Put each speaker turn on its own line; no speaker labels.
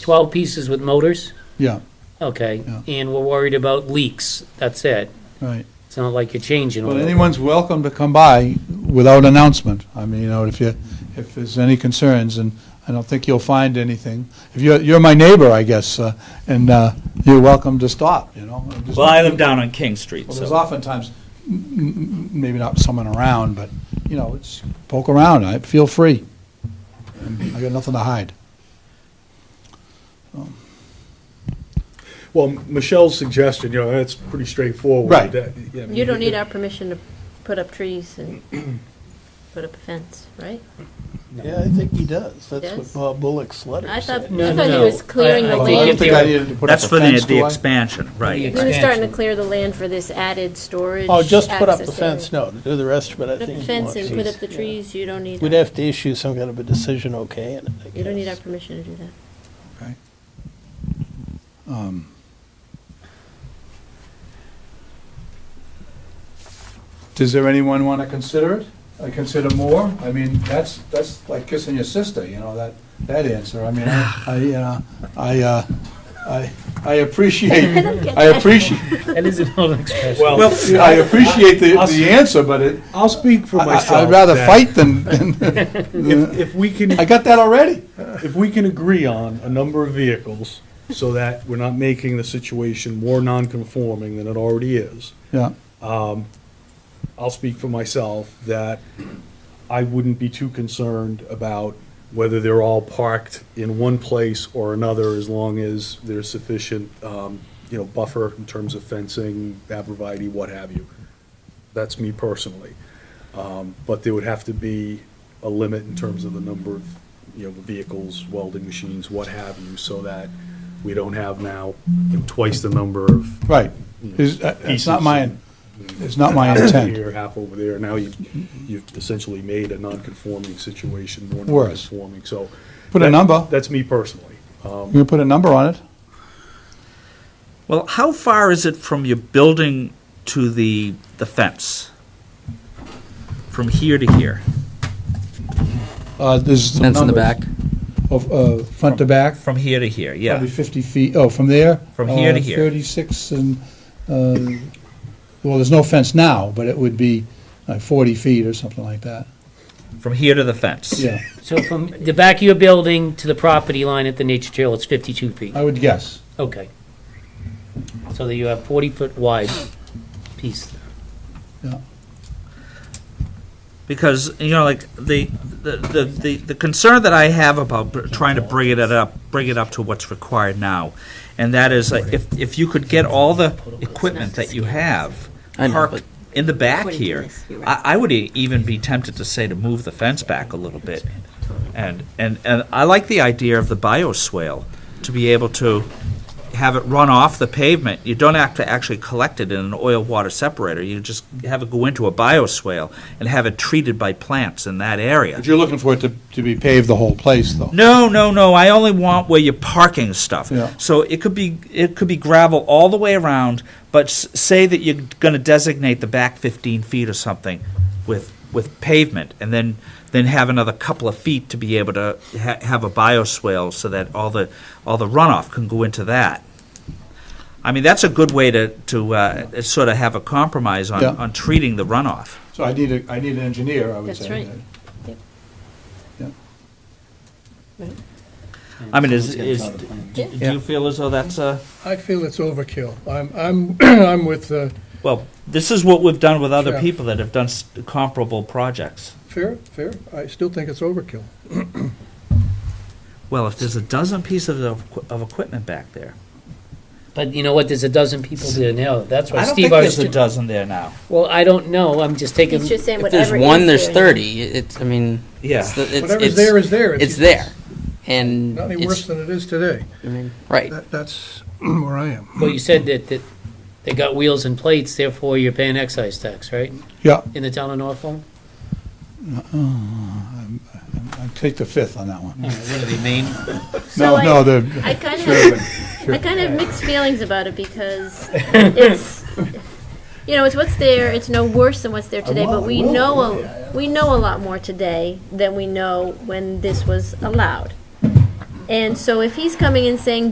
12 pieces with motors?
Yeah,
Okay,
Yeah.
and we're worried about leaks, that's it.
right.
It's not like you're changing all
But
of it.
anyone's welcome to come by without announcement. I mean, you know, if you, if there's any concerns, and I don't think you'll find anything. If you're, you're my neighbor, I guess, uh, and uh, you're welcome to stop, you know? I'm just-
Well, I live down on King Street,
Well, there's
so
oftentimes, m- m- m- maybe not someone around, but, you know, it's poke around, I, feel free. I got nothing to hide.
Well, Michelle's suggestion, you know, that's pretty straightforward.
Right.
That- yeah, I mean,
You don't need
could-
our permission to put up trees and put up a fence, right?
Yeah, I think he does. That's
Yes.
what Bob Bullock's letter
I thought, I
said.
thought
No,
he
no,
was clearing
I-
the
I think
land.
if
He
you-
needed to put
that's
up a
for the,
fence, do
the
I?
expansion, right.
Yeah.
was starting to clear the land for this added storage.
Oh, just put up the
access area.
fence, no, to do the rest of it, I
Put up
think
the
he
fence
wants
and put
us-
up the trees, you don't need,
We'd
our-
have to issue some kind of a decision, okay, and I
you don't need our
guess.
permission to do that.
Um, Does there anyone want to consider it? I consider more? I mean, that's, that's like kissing your sister, you know, that, that answer. I mean, I, I, you know, I, uh, I, I appreciate, I appreciate,
That is an old expression.
Well,
Well,
I appreciate the, the answer, but it,
I'll speak for
I-
myself.
I'd rather
that
fight than, than,
If, if we can,
I got that already.
if we can agree on a number of vehicles so that we're not making the situation more non-conforming than it already is,
Yeah,
I'll speak for myself that I wouldn't be too concerned about whether they're all parked in one place or another as long as there's sufficient, um, you know, buffer in terms of fencing, abreviate, what have you. That's me personally. Um, but there would have to be a limit in terms of the number of, you know, vehicles, welding machines, what have you, so that we don't have now you know, twice the number of
right. It's, uh, it's not my, it's not my
half over
intent.
here, half over there. Now you, you've essentially made a non-conforming situation more
Worse.
non-conforming, so.
Put a
that-
number.
That's me personally.
You gonna put a number on it?
well, how far is it from your building to the, the fence? From here to here?
Uh, there's.
Fence in the
numbers
back.
Of, uh, front to back.
From here to here, yeah.
Probably 50 feet, oh, from there?
From here to
uh,
here.
36 and, uh, well, there's no fence now, but it would be like 40 feet or something like that.
From here to the fence?
Yeah,
So from the back of your building to the property line at the nature trail, it's 52 feet?
I would guess.
Okay. So that you have 40-foot wide piece there.
because you know like the the, the, the the concern that I have about br- trying to bring it up bring it up to what's required now and that is like, if if you could get all the equipment that you have
I know,
parked
but-
in the back
According to
here
this, you're right.
I, I would e- even be tempted to say to move the fence back a little bit and and and I like the idea of the bioswale to be able to have it run off the pavement. You don't have to actually collect it in an oil water separator. You just have it go into a bioswale and have it treated by plants in that area.
But you're looking for it to, to be paved the whole place, though.
No, no, no. I only want where you're parking stuff.
Yeah.
So it could be it could be gravel all the way around, but s- say that you're going to designate the back 15 feet or something with with pavement, and then then have another couple of feet to be able to ha- have a bioswale so that all the all the runoff can go into that. I mean, that's a good way to to uh, sort of have a compromise on,
Yeah.
on treating the runoff.
So I need a, I need an engineer, I would
That's
say.
right.
I mean, is, is do, do you feel as though that's a
I feel it's overkill. I'm, I'm, I'm with uh,
Well, this is what we've done with other
Sure.
people that have done s- comparable projects.
fair, fair. I still think it's overkill.
Well, if there's a dozen pieces of, equi- of equipment back there,
But you know what, there's a dozen people there now, that's why
I don't
Steve
think there's a
Armstrong...
dozen there now.
Well, I don't know, I'm just taking...
He's just saying
If
whatever is
there's
there.
one, there's
now.
30. It, I mean,
Yeah.
it's, the, it's,
Whatever's
it's,
there is there.
it's there. And
Not any
it's-
worse than it is today.
I mean, right.
That, that's where I am.
Well, you said that, that they got wheels and plates, therefore you're paying excise tax, right,
Yeah, Oh,
in the town of Norfolk?
I'd take the fifth on that one.
What do they mean?
So
No,
I-
no, the,
I kind of, I kind of have mixed feelings about it because it's, you know, it's what's there. It's no worse than what's there today, but we know a, we know a lot more today than we know when this was allowed. And so if he's coming and saying,